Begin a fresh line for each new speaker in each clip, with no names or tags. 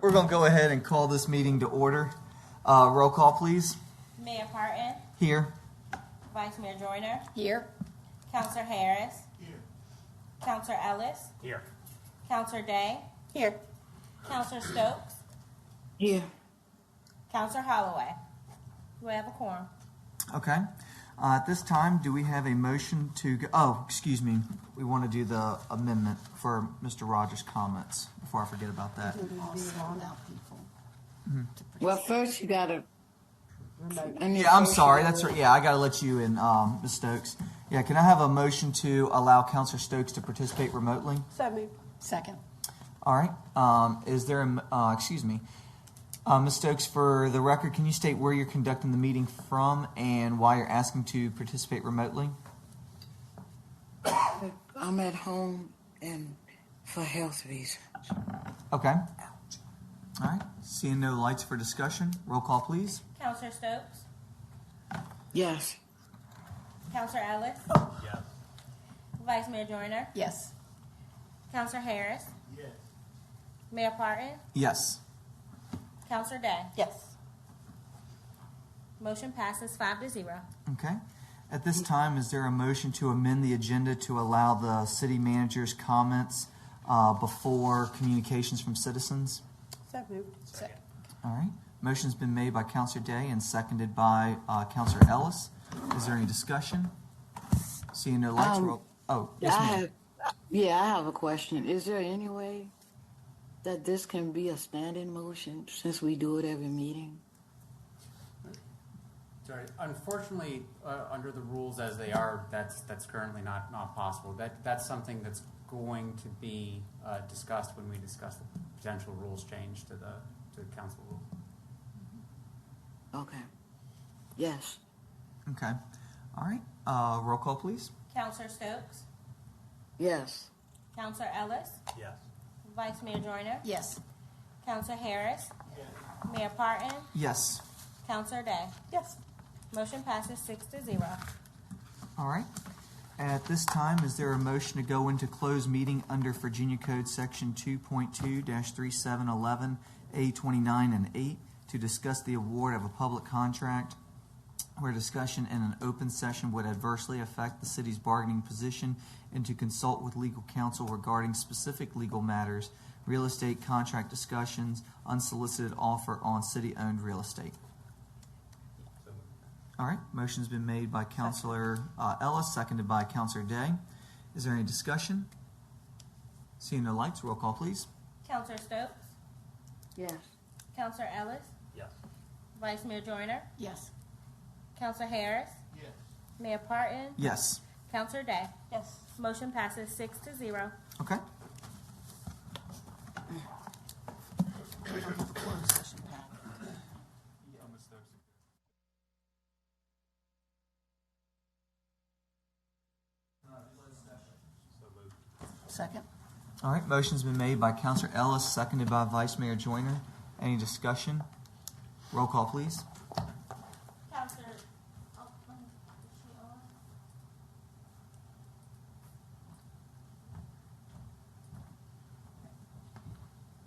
We're going to go ahead and call this meeting to order. Uh, Roll call, please.
Mayor Parton,
Here.
Vice Mayor Joyner,
Here.
Counselor Harris. Counselor Ellis,
Here.
Counselor Day,
Here.
Counselor Stokes,
Here.
Counselor Holloway. We have a quorum.
Okay. Uh, At this time, do we have a motion to, go- oh, excuse me, we want to do the amendment for Mr. Rogers' comments before I forget about that.
Well, first you gotta. and
Yeah, I'm
first you
sorry.
gotta-
That's right. Yeah, I got to let you in, um, Ms. Stokes. Yeah, can I have a motion to allow Counselor Stokes to participate remotely?
So moved.
Second.
All right. Um, is there, a m uh, excuse me, uh, Ms. Stokes, for the record, can you state where you're conducting the meeting from and why you're asking to participate remotely?
I'm at home and for health reasons.
Okay. All right. Seeing no lights for discussion, roll call, please.
Counselor Stokes,
Yes.
Counselor Ellis,
Yes.
Vice Mayor Joyner,
Yes.
Counselor Harris,
Yes.
Mayor Parton,
Yes.
Counselor Day.
Yes.
Motion passes five to zero.
Okay. At this time, is there a motion to amend the agenda to allow the city manager's comments uh, before communications from citizens?
So moved.
Second.
All right. Motion's been made by Counselor Day and seconded by uh, Counselor Ellis. Is there any discussion? Seeing no lights,
Um,
roll. Oh, yes,
I
ma'am.
have, yeah, I have a question. Is there any way that this can be a standing motion since we do it every meeting?
Sorry. Unfortunately, uh, under the rules as they are, that's that's currently not not possible. That that's something that's going to be uh, discussed when we discuss the potential rules change to the to the council rule.
Okay. Yes.
Okay. All right. Uh, roll call, please.
Counselor Stokes,
Yes.
Counselor Ellis,
Yes.
Vice Mayor Joyner,
Yes.
Counselor Harris, Mayor Parton,
Yes.
Counselor Day.
Yes.
Motion passes six to zero.
All right. At this time, is there a motion to go into closed meeting under Virginia Code Section 2.2-3711A29 and 8 to discuss the award of a public contract where discussion in an open session would adversely affect the city's bargaining position and to consult with legal counsel regarding specific legal matters, real estate contract discussions, unsolicited offer on city-owned real estate? All right, motion's been made by Counselor uh, Ellis, seconded by Counselor Day. Is there any discussion? Seeing no lights, roll call, please.
Counselor Stokes,
Yes.
Counselor Ellis,
Yes.
Vice Mayor Joyner,
Yes.
Counselor Harris,
Yes.
Mayor Parton,
Yes.
Counselor Day.
Yes.
Motion passes six to zero.
Okay.
Second.
All right, motion's been made by Counselor Ellis, seconded by Vice Mayor Joyner. Any discussion? Roll call, please.
Counselor. oh,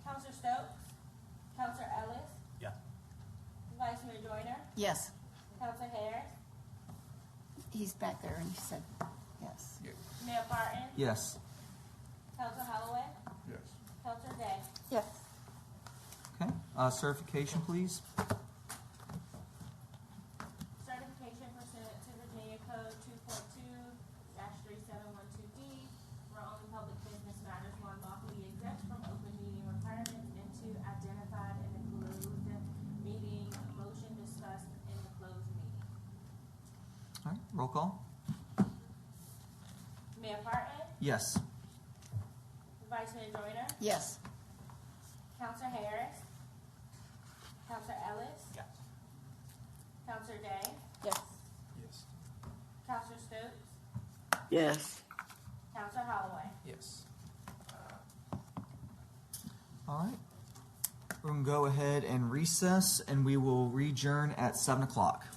Counselor Stokes, Counselor Ellis,
Yes.
Vice Mayor Joyner,
Yes.
Counselor Harris,
He's back there and he said, yes.
Mayor Parton,
Yes.
Counselor Holloway,
Yes.
Counselor Day.
Yes.
Okay, uh, certification, please.
Certification pursuant to Virginia Code two point two three seven one two D, where only public business matters one lawfully exempt from open meeting requirements and two identified in the closed meeting motion discussed in the closed meeting.
All right, roll call.
Mayor Parton,
Yes.
Vice Mayor Joyner,
Yes.
Counselor Harris, Counselor Ellis,
Yes.
Counselor Day,
Yes.
Yes.
Counselor Stokes,
Yes.
Counselor Holloway.
Yes.
All right. We're going to go ahead and recess, and we will adjourn at 7 o'clock.